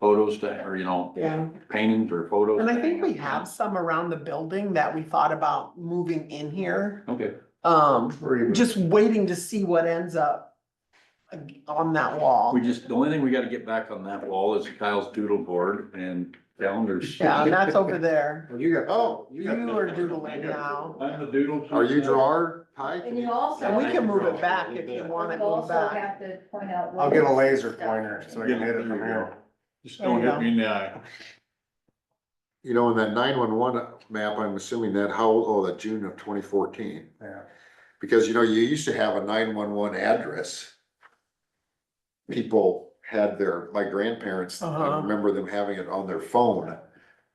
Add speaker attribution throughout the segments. Speaker 1: photos to, or you know,
Speaker 2: Yeah,
Speaker 1: paintings or photos.
Speaker 2: and I
Speaker 1: to
Speaker 2: think
Speaker 1: hang
Speaker 2: we
Speaker 1: up.
Speaker 2: have some around the building that we thought about moving in here.
Speaker 1: Okay,
Speaker 2: Um,
Speaker 3: Or even-
Speaker 2: just waiting to see what ends up on that wall.
Speaker 1: we just, the only thing we gotta get back on that wall is Kyle's doodle board and calendars.
Speaker 2: Yeah, and that's over there.
Speaker 3: Well, You got,
Speaker 2: Oh,
Speaker 3: oh,
Speaker 2: you are doodling now.
Speaker 1: I'm the doodle.
Speaker 3: are you drawer, Ty?
Speaker 4: And you also.
Speaker 2: And we can move it back if you want it
Speaker 4: You
Speaker 2: moved
Speaker 4: also
Speaker 2: back.
Speaker 4: have to point out. what
Speaker 3: I'll get a
Speaker 4: is
Speaker 3: laser
Speaker 4: stuff.
Speaker 3: pointer, so I can hit it from here.
Speaker 1: Just
Speaker 2: don't hit me
Speaker 1: in the eye.
Speaker 3: You know, in that nine-one-one map, I'm assuming that, how, old? oh, that June of twenty fourteen. Yeah. Because, you know, you used to have a nine-one-one address. People had their, my grandparents,
Speaker 2: Uh-huh.
Speaker 3: I remember them having it on their phone,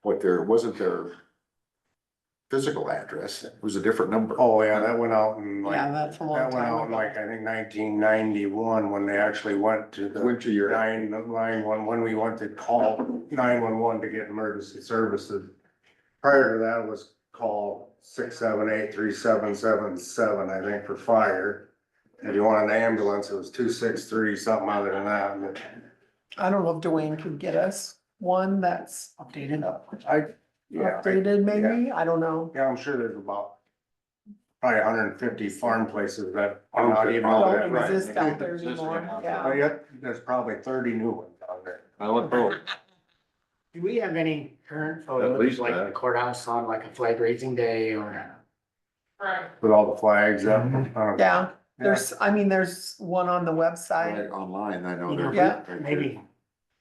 Speaker 3: what their, it wasn't their physical address, it was a different number.
Speaker 5: Oh, yeah, that went out in like,
Speaker 2: Yeah, that's a long
Speaker 5: that went out
Speaker 2: time
Speaker 5: in
Speaker 2: ago.
Speaker 5: like, I think nineteen ninety-one, when they actually went to the
Speaker 3: Went to your.
Speaker 5: nine, nine one, when we went to call nine one one to get emergency services. Prior to that was call six seven eight three seven seven seven, I think, for fire. If you wanted an ambulance, it was two six three, something other than that, but
Speaker 2: I don't know if Dwayne can get us one that's updated up,
Speaker 5: I, yeah. I-
Speaker 2: updated maybe, I don't know.
Speaker 5: Yeah, I'm sure there's about probably hundred and fifty farm places that are
Speaker 3: Farms
Speaker 5: not
Speaker 3: that
Speaker 5: even
Speaker 3: probably-
Speaker 5: on
Speaker 2: Don't
Speaker 5: that, Oh, right?
Speaker 2: exist out there
Speaker 1: Exist
Speaker 2: anymore,
Speaker 1: anymore.
Speaker 5: Oh,
Speaker 2: yeah.
Speaker 5: yeah, there's probably thirty new ones out there.
Speaker 1: I let go.
Speaker 6: Do we have any current
Speaker 1: At least
Speaker 6: photos, like
Speaker 1: that.
Speaker 6: the courthouse on like a flag raising day or?
Speaker 5: With all the flags up. uh,
Speaker 2: Yeah, there's, I mean, there's one on the website,
Speaker 3: Right, Online, I know.
Speaker 6: You know,
Speaker 3: they're-
Speaker 2: Yeah.
Speaker 3: they're-
Speaker 6: Maybe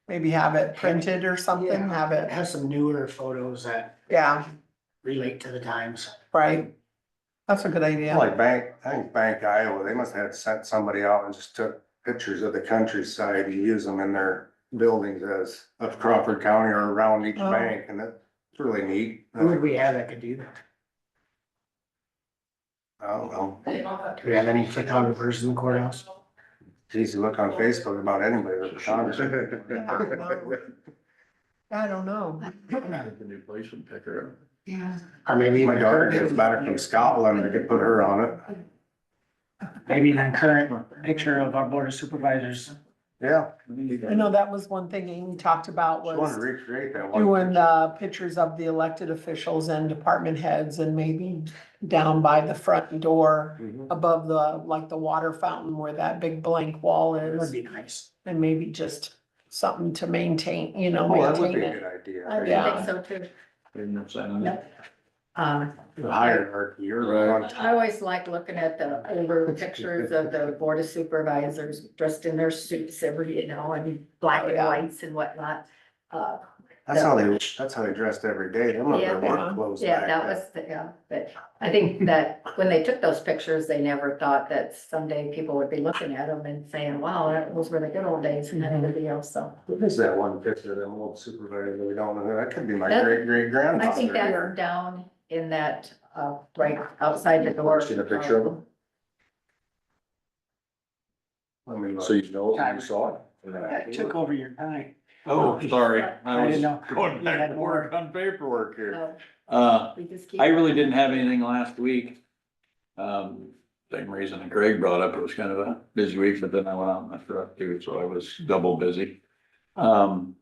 Speaker 2: maybe have it printed or something,
Speaker 6: Yeah.
Speaker 2: have it,
Speaker 6: have some newer photos that
Speaker 2: yeah,
Speaker 6: relate to the times.
Speaker 2: right? That's a good idea.
Speaker 5: Like Bank, I think Bank Iowa, they must have sent somebody out and just took pictures of the countryside to use them in their buildings as of Crawford County or around each
Speaker 2: Oh.
Speaker 5: bank and that's really neat.
Speaker 6: Who would
Speaker 5: I
Speaker 6: we have that could do that?
Speaker 5: don't know.
Speaker 6: Do we have any photographers in the courthouse?
Speaker 5: Geez, you look on Facebook about anybody with a photographer.
Speaker 2: I don't know.
Speaker 1: The new place and pick her
Speaker 4: Yeah.
Speaker 6: Or maybe
Speaker 5: My
Speaker 6: even
Speaker 5: daughter gets
Speaker 6: current,
Speaker 5: back from Scotland, I could put her on it.
Speaker 6: maybe even current picture of our board of supervisors.
Speaker 5: Yeah,
Speaker 2: I know that was one thing Amy talked about
Speaker 5: she wanted to
Speaker 2: was
Speaker 5: recreate that one.
Speaker 2: doing, uh, pictures of the elected officials and department heads and maybe down by the front door
Speaker 5: Mhm.
Speaker 2: above the, like the water fountain where that big blank wall
Speaker 6: That would
Speaker 2: is
Speaker 6: be nice.
Speaker 2: and maybe just something to maintain, you know,
Speaker 5: Oh, that would
Speaker 2: maintain
Speaker 5: be a
Speaker 2: it.
Speaker 5: good idea.
Speaker 4: I
Speaker 2: Yeah.
Speaker 4: would think so too.
Speaker 1: in.
Speaker 4: Yep. Um,
Speaker 5: The hierarchy, you're the one.
Speaker 4: I always like looking at the older pictures of the board of supervisors dressed in their suits every, you know, and black and whites and whatnot. Uh,
Speaker 5: That's how they, that's how they dressed every day. They must have
Speaker 4: Yeah.
Speaker 2: uh-huh.
Speaker 5: work clothes
Speaker 4: Yeah,
Speaker 5: back
Speaker 4: that
Speaker 5: then.
Speaker 4: was, the- yeah, but I think that when they took those pictures, they never thought that someday people would be looking at them and saying, wow, that was where the good old days and everything else, so.
Speaker 5: What is that one picture of them old supervisor that we don't know? That could be my
Speaker 4: That-
Speaker 5: great great grandfather.
Speaker 4: I think that's down in that, uh, right outside the door.
Speaker 3: Seen a picture of them?
Speaker 5: Let me look.
Speaker 3: So you know, you saw it?
Speaker 6: That took over your time.
Speaker 1: Oh, sorry,
Speaker 6: I
Speaker 1: I was
Speaker 6: didn't know.
Speaker 1: going
Speaker 6: You
Speaker 1: back
Speaker 6: had
Speaker 1: to work on paperwork here.
Speaker 4: So
Speaker 1: Uh,
Speaker 4: Um, we just keep-
Speaker 1: I really didn't have anything last week. Um, same reason that Greg brought up, it was kind of a busy week, but then I went out and I thought too, so I was double busy. Um.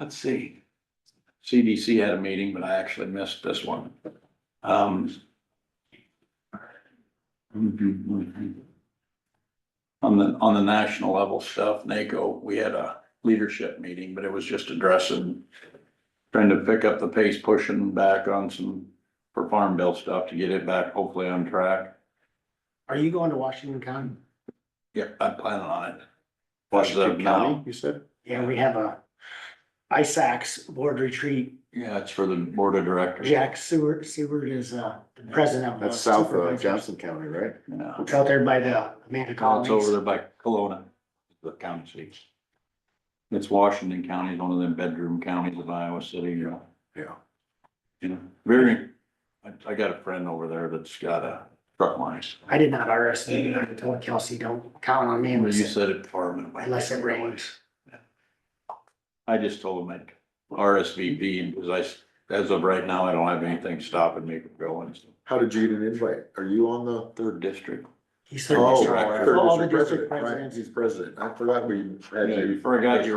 Speaker 1: Let's see. CDC had a meeting, but I actually missed this one. Um. On the, on the national level stuff, NACO, we had a leadership meeting, but it was just addressing trying to pick up the pace, pushing back on some for farm bill stuff to get it back hopefully on track.
Speaker 6: Are you going to Washington County?
Speaker 1: Yep, I'm planning on it.
Speaker 3: Washington
Speaker 1: As of
Speaker 3: County,
Speaker 1: now.
Speaker 3: you said?
Speaker 6: Yeah, we have a ISACs board retreat.
Speaker 1: Yeah, it's for the board of directors.
Speaker 6: Jack Seward, Seward is, uh, the president of. the
Speaker 3: That's south of
Speaker 6: Uh, supervisors.
Speaker 3: Johnson County, right?
Speaker 1: Yeah.
Speaker 6: It's out there by the Amanda
Speaker 1: It's over
Speaker 6: Collins.
Speaker 1: there by Kelowna, the county seats. It's Washington County, it's one of them bedroom counties of Iowa City, you know.
Speaker 3: Yeah.
Speaker 1: You know, very, I, I got a friend over there that's got a truck line.
Speaker 6: I did not RSVP. I told Kelsey, don't count on me
Speaker 1: You
Speaker 6: unless,
Speaker 1: said it farming.
Speaker 6: unless it rains.
Speaker 1: I just told him I'd RSVP because I, s- as of right now, I don't have anything stopping me from going. It's the
Speaker 3: How did you get an invite? Are you on the?
Speaker 1: Third district.
Speaker 6: He said,
Speaker 3: Oh,
Speaker 6: "Mr.
Speaker 3: third
Speaker 6: All the
Speaker 3: district president,
Speaker 6: district
Speaker 3: right,
Speaker 6: presidents.
Speaker 3: he's president. I forgot we had you.
Speaker 1: Forgot you